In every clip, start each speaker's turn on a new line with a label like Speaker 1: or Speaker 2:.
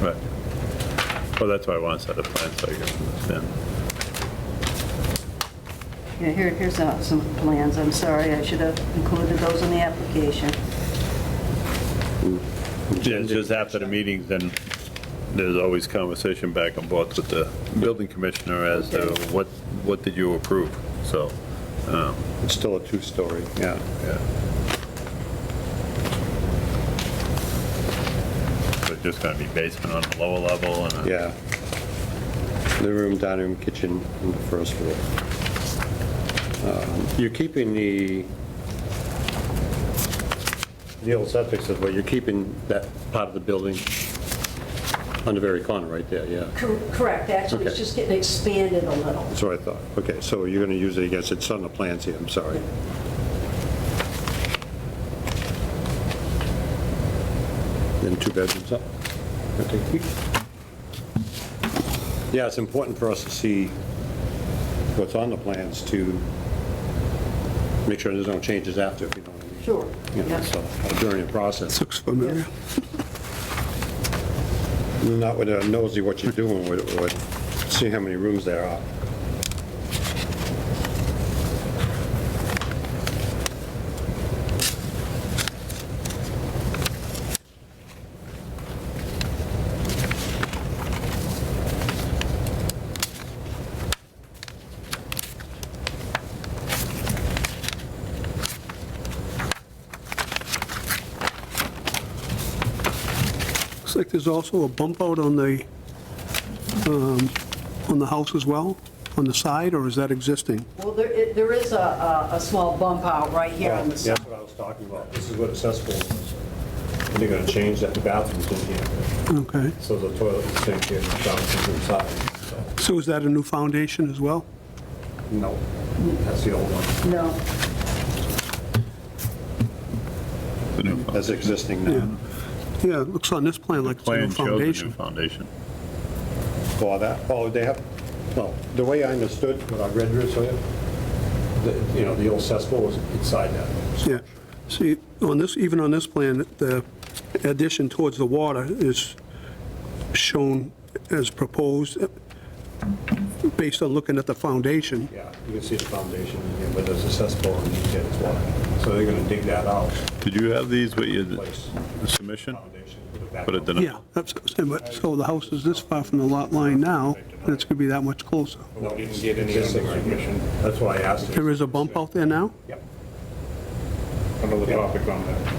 Speaker 1: Right. Well, that's why I want to set a plan, so I can understand.
Speaker 2: Yeah, here, here's uh, some plans, I'm sorry, I should have included those in the application.
Speaker 1: Yeah, just after the meetings, then there's always conversation back and forth with the building commissioner as to what, what did you approve, so, um,
Speaker 3: It's still a two-story.
Speaker 1: yeah, yeah. So it's just gonna be basement on the lower level and a
Speaker 3: Yeah. Living room, dining room, kitchen on the first floor. Um, You're keeping the, the old septic system, but you're keeping that part of the building on the very corner right there, yeah.
Speaker 2: Correct, actually,
Speaker 3: it's Okay. just
Speaker 2: getting expanded a little.
Speaker 3: That's what I thought. Okay, so you're going to use it, I guess, it's on the plans here, I'm sorry. Then two bedrooms up. Okay. Yeah, it's important for us to see what's on the plans to make sure there's no changes after, if you know what I mean.
Speaker 2: Sure,
Speaker 3: You know,
Speaker 2: yeah.
Speaker 3: so, uh, during the process.
Speaker 4: Looks familiar.
Speaker 3: Not with a nosy what you're doing, with, with, see how many rooms there are.
Speaker 4: Looks like there's also a bump out on the, um, on the house as well, on the side, or is that existing?
Speaker 2: Well, there, it- there is a, a a small bump out right here on the
Speaker 3: That's
Speaker 2: side.
Speaker 3: what I was talking about. This is what accessible is. And they're gonna change that, the bathroom's in here,
Speaker 4: Okay.
Speaker 3: so the toilet and sink here, and the shower's inside, so.
Speaker 4: So is that a new foundation as well?
Speaker 3: No, that's the old one.
Speaker 2: No,
Speaker 1: the new
Speaker 3: That's
Speaker 1: foundation.
Speaker 3: existing now.
Speaker 4: Mm-hmm. Yeah, it looks on this plan like it's a new
Speaker 1: Plan shows the new
Speaker 4: foundation.
Speaker 1: foundation.
Speaker 3: For that, oh, they have, well, the way I understood when I read this, so, the- you know, the old cesspool was inside that.
Speaker 4: Yeah. See, on this, even on this plan, the addition towards the water is shown as proposed, uh, based on looking at the foundation.
Speaker 3: Yeah, you can see the foundation, in here, but there's a cesspool and you get water. So they're gonna dig that out,
Speaker 1: Did you have these with your
Speaker 3: place
Speaker 1: submission?
Speaker 3: foundation, put it back
Speaker 1: Put it
Speaker 3: up.
Speaker 1: in.
Speaker 4: Yeah, that's, what I'm saying, but- so the house is this far from the lot line now, and it's going to be that much closer.
Speaker 3: No, you didn't get any of the recognition. That's why I asked.
Speaker 4: There is a bump out there now?
Speaker 3: Yep.
Speaker 5: another topic on that.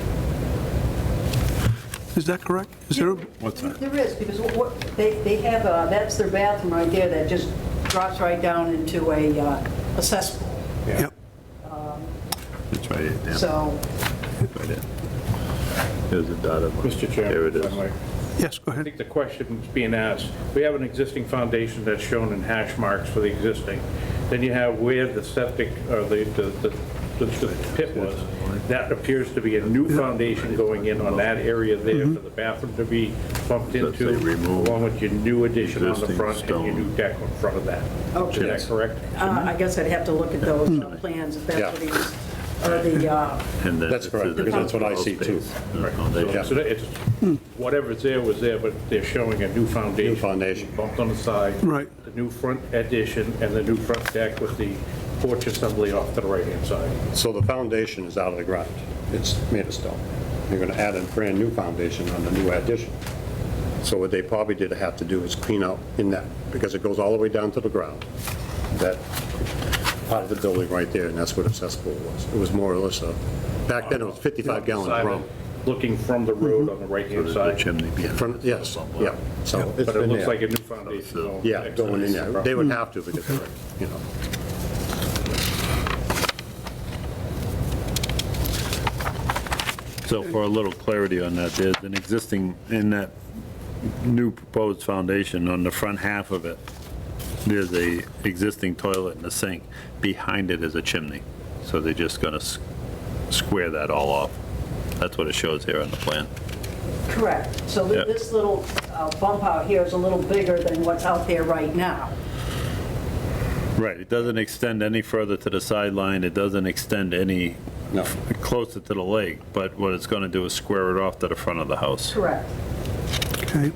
Speaker 4: Is that correct? Is there, a-
Speaker 1: What's that?
Speaker 2: there is, because what- what, they, they have, uh, that's their bathroom right there that just drops right down into a uh, a cesspool.
Speaker 4: yep,
Speaker 1: It's right here, Dan.
Speaker 2: So,
Speaker 1: Right there. There's a dotted line.
Speaker 5: Mr. Chairman.
Speaker 1: There it
Speaker 5: if I might.
Speaker 1: is.
Speaker 4: yes, go
Speaker 5: I
Speaker 4: ahead.
Speaker 5: think the question is being asked, we have an existing foundation that's shown in hash marks for the existing. Then you have where the septic, or the, the- the the- the pit was. That appears to be a new foundation going in on that area there for the bathroom to be bumped
Speaker 1: Does
Speaker 5: into,
Speaker 1: say remove
Speaker 5: along with your new addition on the
Speaker 1: existing
Speaker 5: front and your
Speaker 1: stone.
Speaker 5: new deck on front of that.
Speaker 2: Okay.
Speaker 5: Is that correct?
Speaker 2: uh, I guess I'd have to look at those uh, plans, if
Speaker 3: Yeah.
Speaker 2: that's what he's, or the, uh,
Speaker 1: And then
Speaker 3: That's
Speaker 1: it
Speaker 3: correct,
Speaker 1: says
Speaker 3: because that's what I
Speaker 1: it's
Speaker 3: see
Speaker 1: all
Speaker 3: too.
Speaker 1: space Uh, and foundation.
Speaker 3: Yeah.
Speaker 5: So that it's, whatever's there was there, but they're showing a new foundation.
Speaker 3: New foundation.
Speaker 5: Bumped on the side.
Speaker 4: Right.
Speaker 5: The new front addition and the new front deck with the porch assembly off to the right-hand side.
Speaker 3: So the foundation is out of the ground. It's made of stone. You're going to add a brand-new foundation on the new addition. So what they probably did have to do is clean out in that, because it goes all the way down to the ground. That part of the building right there, and that's what accessible was. It was more or less a, back then it was 55 gallon
Speaker 5: Side,
Speaker 3: drum.
Speaker 5: Looking from the road on the right-hand
Speaker 1: There's a
Speaker 5: side.
Speaker 1: chimney behind.
Speaker 3: From,
Speaker 1: it.
Speaker 3: yes, yeah. So it's
Speaker 5: But it
Speaker 3: been
Speaker 5: looks like a
Speaker 3: there. Mm-hmm.
Speaker 5: new foundation. going
Speaker 3: Yeah,
Speaker 5: next
Speaker 3: going in
Speaker 5: to the
Speaker 3: there. They
Speaker 5: property.
Speaker 3: would have to because, they're, you know.
Speaker 1: So for a little clarity on that, there's an existing, in that new proposed foundation, on the front half of it, there's a existing toilet and a sink. Behind it is a chimney. So they're just gonna s- square that all off. That's what it shows here on the plan.
Speaker 2: Correct. So
Speaker 1: Yeah.
Speaker 2: th- this little uh, bump out here is a little bigger than what's out there right now.
Speaker 1: Right, it doesn't extend any further to the sideline, it doesn't extend any
Speaker 3: No.
Speaker 1: closer to the lake, but what it's gonna do is square it off to the front of the house.
Speaker 2: Correct.
Speaker 4: Okay.